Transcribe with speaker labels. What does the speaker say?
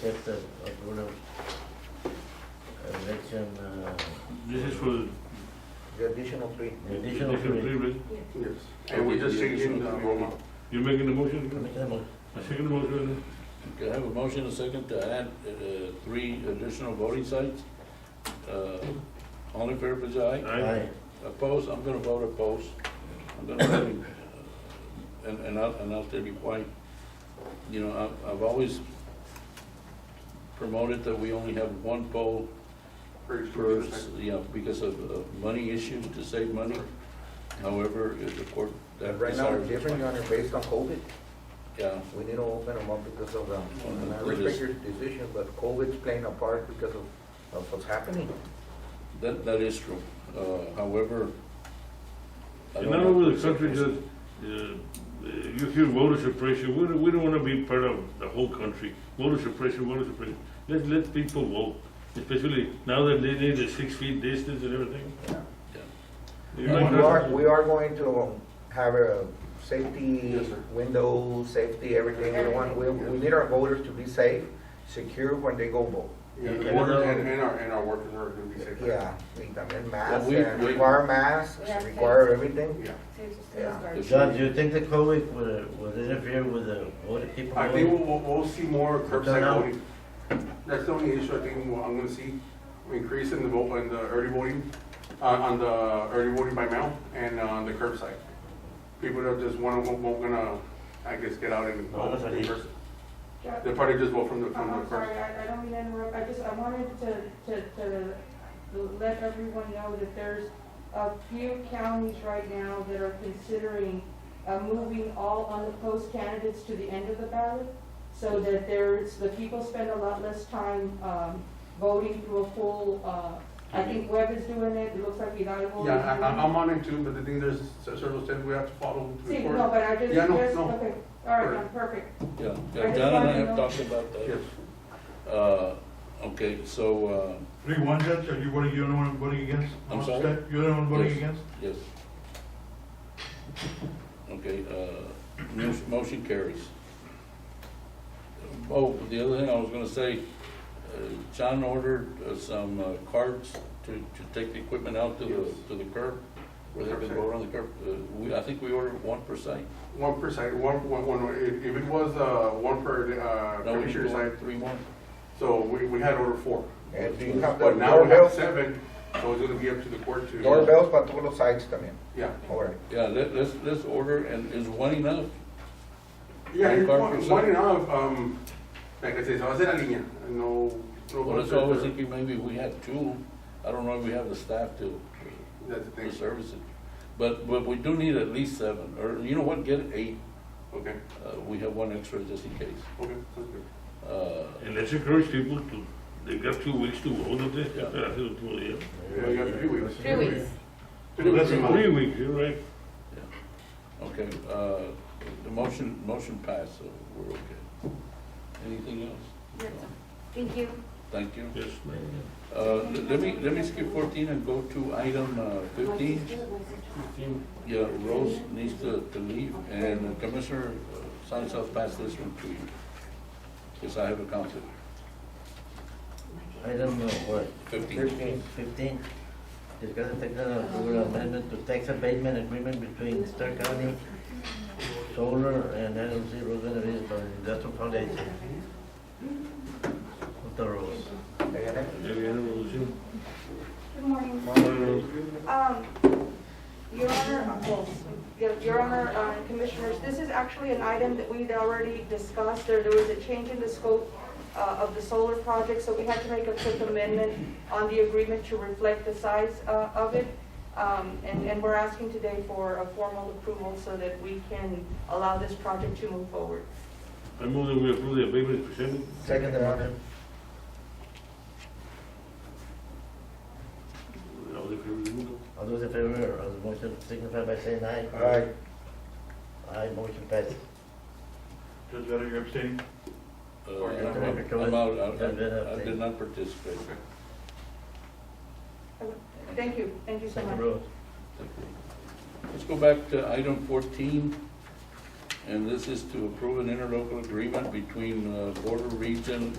Speaker 1: test of approval of election, uh,
Speaker 2: This is for
Speaker 3: Additional three.
Speaker 1: additional
Speaker 2: additional
Speaker 1: three.
Speaker 2: three, right?
Speaker 4: Yes.
Speaker 5: And we just
Speaker 4: The
Speaker 5: changed
Speaker 4: additional
Speaker 5: the
Speaker 4: three.
Speaker 5: roll up.
Speaker 2: You're making the motion?
Speaker 1: Make a motion.
Speaker 2: I second the motion.
Speaker 4: Okay, I have a motion, a second, to add uh, three additional voting sites. Uh, All in favor, please, aye.
Speaker 2: Aye.
Speaker 4: Opposed, I'm gonna vote opposed. I'm gonna vote, uh, and, and I'll, and I'll tell you why. You know, I've, I've always promoted that we only have one poll
Speaker 5: For each
Speaker 4: per,
Speaker 5: district.
Speaker 4: you know, because of, of money issues, to save money. However, if the court, that
Speaker 3: Right now, we're
Speaker 4: decided.
Speaker 3: different, Your Honor, based on COVID.
Speaker 4: Yeah,
Speaker 3: We need to open them up because of, um, and I
Speaker 4: It is-
Speaker 3: respect your decision, but COVID's playing a part because of, of what's happening.
Speaker 4: that, that is true. Uh, however. I
Speaker 2: And
Speaker 4: don't
Speaker 2: not
Speaker 4: know.
Speaker 2: over the country, just, uh, you hear voter suppression, we don't, we don't wanna be part of the whole country. Voter suppression, voter suppression, let, let people vote, especially now that they need the six feet distance and everything.
Speaker 3: We
Speaker 2: You might not-
Speaker 3: are, we are going to um, have a safety
Speaker 5: Yes, sir.
Speaker 3: window, safety, everything. We want, we, we need our voters to be safe, secure when they go vote.
Speaker 5: Yeah, the
Speaker 2: And
Speaker 5: board
Speaker 2: our-
Speaker 5: and, and our, and our workers are gonna be safe.
Speaker 3: Yeah, we también masks,
Speaker 4: we-
Speaker 3: and
Speaker 4: we-
Speaker 3: require masks,
Speaker 6: We have to-
Speaker 3: require everything.
Speaker 5: Yeah.
Speaker 6: Yeah.
Speaker 1: Judge, do you think the COVID will, will interfere with the voter people?
Speaker 5: I think we'll, we'll, we'll see more curbside
Speaker 1: Turnout.
Speaker 5: voting. That's the only issue I think we'll- I'm gonna see, increase in the vote, in the early voting, uh, on the early voting by mail and uh, on the curbside. People that just wanna, won't, won't gonna, I guess, get out and
Speaker 1: No,
Speaker 5: vote
Speaker 1: that's
Speaker 5: in
Speaker 1: okay.
Speaker 5: person. They'll probably just vote from the, from the
Speaker 6: I'm sorry,
Speaker 5: person.
Speaker 6: I, I don't mean to interrupt, I just, I wanted to, to, to let everyone know that there's a few counties right now that are considering, uh, moving all unopposed candidates to the end of the ballot, so that there's, the people spend a lot less time, um, voting through a full, uh, I think Webb is doing it, it looks like Hidalgo is doing it.
Speaker 5: Yeah, I, I- I'm on it too, but the thing, there's certain steps we have to follow to
Speaker 6: See,
Speaker 5: enforce.
Speaker 6: no, but I just,
Speaker 5: Yeah, no,
Speaker 6: just,
Speaker 5: no.
Speaker 6: okay, all right, I'm perfect.
Speaker 4: Yeah,
Speaker 6: I
Speaker 4: yeah,
Speaker 6: just
Speaker 4: John and I
Speaker 6: wanted to
Speaker 4: have
Speaker 6: know-
Speaker 4: talked about that.
Speaker 5: Yes.
Speaker 4: Uh, okay, so, uh,
Speaker 7: Three one judge, are you, what are you, the one voting against?
Speaker 4: I'm
Speaker 7: Amongst
Speaker 4: sorry?
Speaker 7: that, You're the one voting
Speaker 4: Yes.
Speaker 7: against?
Speaker 4: Yes. Okay, uh, mo- motion carries. Oh, the other thing I was gonna say, uh, John ordered uh, some uh, carts to, to take the equipment out to
Speaker 5: Yes.
Speaker 4: the, to the curb, where they can
Speaker 5: Curbside.
Speaker 4: go around the curb. Uh, We, I think we ordered one per site.
Speaker 5: One per side, one, one, one, if if it was, uh, one per, uh,
Speaker 4: No, we
Speaker 5: commissioner side,
Speaker 4: ordered Three more.
Speaker 5: so we, we had order four.
Speaker 3: And do you have the
Speaker 5: But now we have
Speaker 3: doorbells?
Speaker 5: seven, so it's gonna be up to the court to.
Speaker 3: Doorbells para todos los sites también.
Speaker 5: Yeah.
Speaker 3: All right.
Speaker 4: Yeah, let, let's, let's order, and is one enough?
Speaker 5: Yeah,
Speaker 4: And
Speaker 5: it's
Speaker 4: car
Speaker 5: one,
Speaker 4: for
Speaker 5: one
Speaker 4: sale.
Speaker 5: and a half, um, like I said, so I said a línea, no. no
Speaker 4: Well, that's
Speaker 5: concern
Speaker 4: what I was
Speaker 5: for-
Speaker 4: thinking, maybe we had two. I don't know if we have the staff to,
Speaker 5: That's the
Speaker 4: to
Speaker 5: thing,
Speaker 4: service it. But, but we do need at least seven, or you know what, get eight.
Speaker 5: okay,
Speaker 4: Uh, we have one extra just in case.
Speaker 5: okay, sounds good.
Speaker 4: Uh,
Speaker 2: And let's encourage people to, they got two weeks to vote, don't they?
Speaker 4: Yeah.
Speaker 2: I think two, yeah.
Speaker 1: Uh,
Speaker 5: Yeah, you got three weeks.
Speaker 6: Three weeks.
Speaker 5: Three weeks.
Speaker 7: That's a
Speaker 2: Three weeks, you're right.
Speaker 4: okay, uh, the motion, motion passed, so we're okay. Anything else?
Speaker 8: Thank you.
Speaker 4: Thank you.
Speaker 2: Yes,
Speaker 4: Uh, let me, let me skip fourteen and go to item uh, fifteen. Yeah, Rose needs to, to leave, and Commissioner uh, Sanchez I'll pass this one to you. Because I have a conflict.
Speaker 1: I don't know what.
Speaker 4: Fifteen.
Speaker 1: Fifteen, discuss and take an approval amendment to tax abatement agreement between Stark County Solar and LLC Road Renovations for Industrial Foundation. Punta Rose.
Speaker 3: Diana?
Speaker 2: Maybe I don't know, Jim.
Speaker 6: Good morning.
Speaker 2: Uh,
Speaker 6: Um, Your Honor, uh, well, Your- Your Honor, uh, Commissioners, this is actually an item that we'd already discussed. There, there was a change in the scope uh, of the solar project, so we had to make a quick amendment on the agreement to reflect the size uh, of it. Um, And, and we're asking today for a formal approval so that we can allow this project to move forward.
Speaker 2: I move that we approve the abatement presented.
Speaker 3: Second, Your Honor.
Speaker 2: All the favor, remove.
Speaker 1: All those in favor of the motion signify by saying aye.
Speaker 3: Aye.
Speaker 1: Aye, motion passes.
Speaker 7: Judge Vedder, you're abstaining?
Speaker 4: Uh,
Speaker 5: Or you
Speaker 4: I'm
Speaker 5: have
Speaker 1: to-
Speaker 4: out. I'm out. I-
Speaker 1: You've been
Speaker 4: I- I did
Speaker 1: abstained.
Speaker 4: not participate.
Speaker 6: Thank you, thank you so
Speaker 1: Punta
Speaker 6: much.
Speaker 1: Rose.
Speaker 4: Let's go back to item fourteen, and this is to approve an interlocal agreement between uh, Border Region